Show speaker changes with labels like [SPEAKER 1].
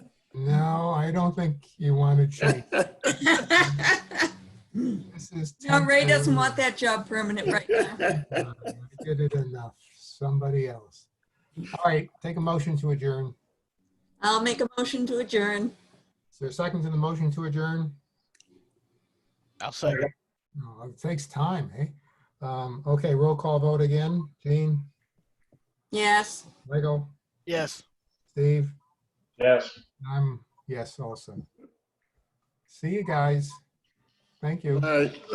[SPEAKER 1] I don't think you want to change. This is
[SPEAKER 2] No, Ray doesn't
[SPEAKER 1] temporary.
[SPEAKER 2] want that job permanent right now.
[SPEAKER 1] uh, I Did it enough. Somebody else. All right, take a motion to adjourn.
[SPEAKER 2] I'll make a motion to adjourn.
[SPEAKER 1] Is there a second to the motion to adjourn?
[SPEAKER 3] I'll second.
[SPEAKER 1] No, It takes time, eh? Um, Okay, roll call vote again. Jean,
[SPEAKER 2] Yes.
[SPEAKER 1] Lego,
[SPEAKER 3] Yes.
[SPEAKER 1] Steve,
[SPEAKER 4] Yes.
[SPEAKER 1] I'm yes also. See you guys. Thank you.
[SPEAKER 3] right.